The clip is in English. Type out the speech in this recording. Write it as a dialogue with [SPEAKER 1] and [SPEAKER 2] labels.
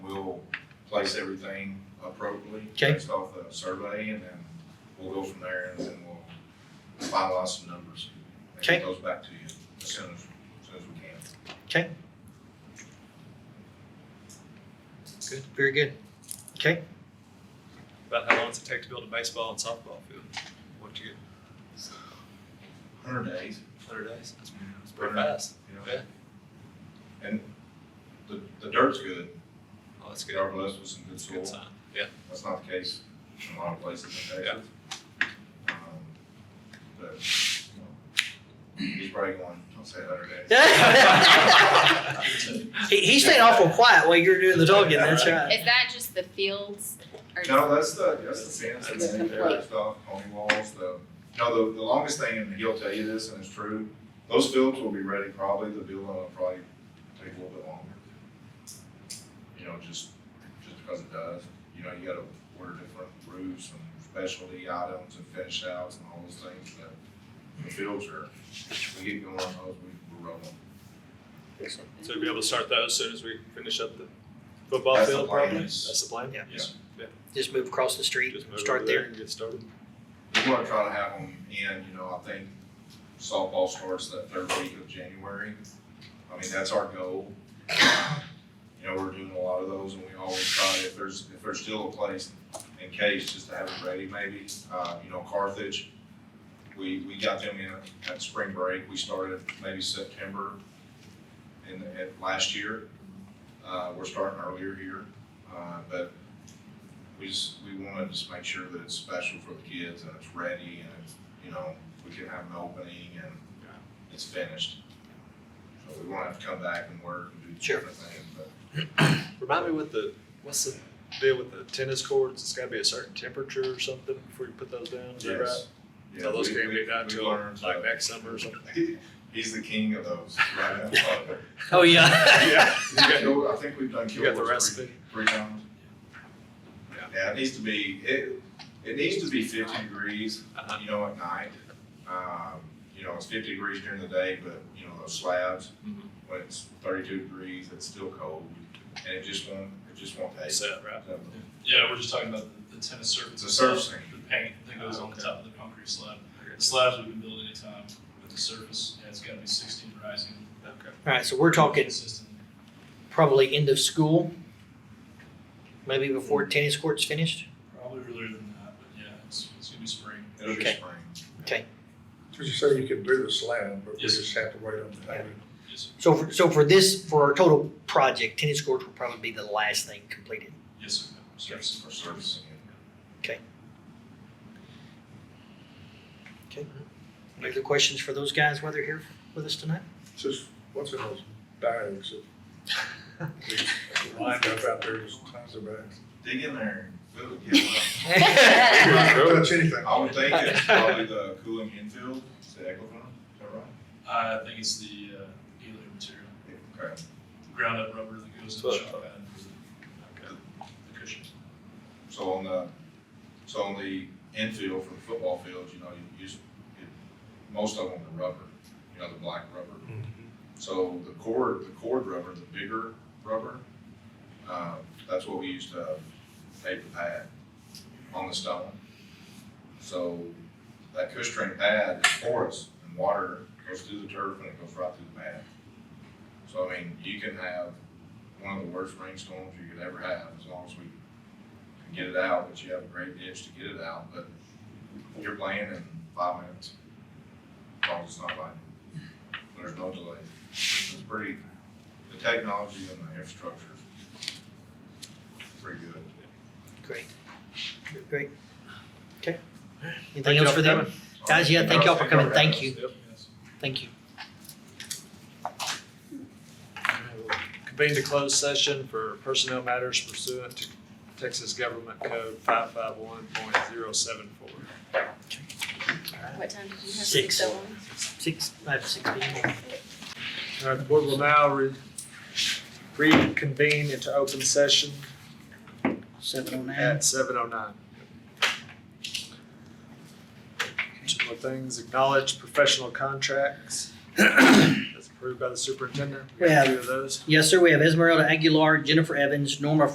[SPEAKER 1] place everything appropriately.
[SPEAKER 2] Okay.
[SPEAKER 1] Based off the survey, and then we'll go from there, and then we'll finalize some numbers. and get
[SPEAKER 2] Okay.
[SPEAKER 1] Those back to you as soon as, as soon as we can.
[SPEAKER 2] Good, very good. Okay,
[SPEAKER 3] About how long does it take to build a baseball and softball field? What'd you get,
[SPEAKER 1] Hundred days,
[SPEAKER 3] hundred days? That's that's pretty
[SPEAKER 1] Right.
[SPEAKER 3] fast.
[SPEAKER 1] you know?
[SPEAKER 3] Yeah.
[SPEAKER 1] And the, the dirt's good,
[SPEAKER 3] Oh, that's
[SPEAKER 1] we
[SPEAKER 3] good.
[SPEAKER 1] are blessed with some good
[SPEAKER 3] That's a
[SPEAKER 1] soil.
[SPEAKER 3] good sign. Yeah.
[SPEAKER 1] That's not the case in a lot of places in Texas. Um, But, you know, he's probably going, I'll say hundred days.
[SPEAKER 2] he, he stayed awful quiet while you were doing the talking. That's right.
[SPEAKER 4] Is that just the fields? Or
[SPEAKER 1] No, that's the, that's the fence, that's
[SPEAKER 4] It's
[SPEAKER 1] the
[SPEAKER 4] complete.
[SPEAKER 1] there, stuff, pony walls, the, no, the, the longest thing, and he'll tell you this, and it's true, those fields will be ready probably, the building will probably take a little bit longer. You know, just, just because it does, you know, you gotta order different roofs and specialty items and finish outs and all those things, but the fields are, we get going on those, we, we're rolling.
[SPEAKER 3] So we'll be able to start those as soon as we finish up the football
[SPEAKER 1] That's the
[SPEAKER 3] field
[SPEAKER 1] plan.
[SPEAKER 3] probably? That's the plan?
[SPEAKER 2] Yeah.
[SPEAKER 3] Yes.
[SPEAKER 2] Just move across the street,
[SPEAKER 3] Just move
[SPEAKER 2] start
[SPEAKER 3] over
[SPEAKER 2] there.
[SPEAKER 3] and Get started.
[SPEAKER 1] We wanna try to have them in, you know, I think softball starts that third week of January. I mean, that's our goal. You know, we're doing a lot of those and we always try, if there's, if there's still a place in case, just to have it ready maybe. Uh, you know, Carthage, we, we got them in at spring break. We started maybe September in, at last year. Uh, we're starting earlier here, uh, but we just, we wanna just make sure that it's special for the kids and it's ready and it's, you know, we can have an opening and it's finished. So we won't have to come back and work and do
[SPEAKER 2] Sure.
[SPEAKER 1] different things, but
[SPEAKER 3] Remind me what the, what's the deal with the tennis courts? It's gotta be a certain temperature or something before you put those down, is that right?
[SPEAKER 1] yes. Yeah,
[SPEAKER 3] So those
[SPEAKER 1] we-
[SPEAKER 3] can't
[SPEAKER 1] we-
[SPEAKER 3] be done
[SPEAKER 1] we
[SPEAKER 3] till
[SPEAKER 1] learned,
[SPEAKER 3] like
[SPEAKER 1] uh,
[SPEAKER 3] next summer or something?
[SPEAKER 1] He's the king of those, right? now.
[SPEAKER 2] Oh yeah.
[SPEAKER 3] Yeah.
[SPEAKER 1] He's killed- I think we've done
[SPEAKER 3] You got the
[SPEAKER 1] Kilgore's three,
[SPEAKER 3] recipe?
[SPEAKER 1] three times.
[SPEAKER 3] Yeah.
[SPEAKER 1] Yeah, it needs to be, it, it needs to be fifty degrees
[SPEAKER 3] Uh-huh.
[SPEAKER 1] you know, at night. Um, you know, it's fifty degrees during the day, but you know, those slabs,
[SPEAKER 3] Mhm.
[SPEAKER 1] when it's thirty-two degrees, it's still cold. And it just won't, it just won't take.
[SPEAKER 3] Set, right?
[SPEAKER 5] Yeah, we're just talking about the the tennis surface.
[SPEAKER 1] It's a surface
[SPEAKER 5] itself,
[SPEAKER 1] thing.
[SPEAKER 5] The paint that goes on
[SPEAKER 1] Okay.
[SPEAKER 5] the top of the concrete slab. The slabs we can build anytime, but the surface, yeah, it's gotta be sixteen rising.
[SPEAKER 3] Okay.
[SPEAKER 2] All right, so we're talking
[SPEAKER 5] Consistent.
[SPEAKER 2] probably end of school, maybe before tennis court's finished.
[SPEAKER 5] Probably earlier than that, but yeah, it's, it's gonna be spring.
[SPEAKER 1] It'll be
[SPEAKER 2] Okay.
[SPEAKER 1] spring.
[SPEAKER 6] Did you say you can do the slab, but we
[SPEAKER 5] Yes, sir.
[SPEAKER 6] just have to wait on the paving?
[SPEAKER 5] Yes, sir.
[SPEAKER 2] So for, so for this for our total project, tennis courts will probably be the last thing completed.
[SPEAKER 5] yes, sir. Surface.
[SPEAKER 1] Surface, or surfacing it.
[SPEAKER 2] Any other questions for those guys while they're here with us tonight?
[SPEAKER 6] Just, what's in those bags? that- Lined up out there, there's tons of bags.
[SPEAKER 1] Dig in there and fill it, get it.
[SPEAKER 6] You're not gonna
[SPEAKER 3] Sure.
[SPEAKER 6] touch anything.
[SPEAKER 1] I would think it's probably the cooling infield, is it Equifon, is that right?
[SPEAKER 5] I think it's the, uh, helium material,
[SPEAKER 1] Okay.
[SPEAKER 5] ground up rubber that goes in the
[SPEAKER 3] Well,
[SPEAKER 5] shot pad for the, the cushion.
[SPEAKER 1] So on the, so on the infield for the football fields, you know, you use, it- most of them are rubber, you know, the black rubber. So the cord, the cord rubber, the bigger rubber, uh, that's what we used to tape the pad on the stone. So that cush string pad is porous and water goes through the turf and it goes right through the pad. So I mean, you can have one of the worst rainstorms you could ever have as long as we can get it out, but you have a great ditch to get it out, but you're playing in five minutes. As long as it's not like there's no delay. It's pretty, the technology and the infrastructure is pretty good.
[SPEAKER 2] Great. Great. Okay. Anything else for them? Guys, yeah, thank y'all for coming. Thank you.
[SPEAKER 5] Yes.
[SPEAKER 2] Thank you.
[SPEAKER 3] Convene to closed session for personnel matters pursuant to Texas Government Code five five one point zero seven four.
[SPEAKER 4] What time did you have?
[SPEAKER 2] Six.
[SPEAKER 4] oh one?
[SPEAKER 2] Six, I have six people.
[SPEAKER 3] All right, the board will now re- reconvene into open session
[SPEAKER 2] Seven oh nine.
[SPEAKER 3] at seven oh nine. Two more things, acknowledge professional contracts that's approved by the superintendent. We got
[SPEAKER 2] We have-
[SPEAKER 3] two of those.
[SPEAKER 2] Yes, sir. We have Esmeralda Aguilar, Jennifer Evans, Norma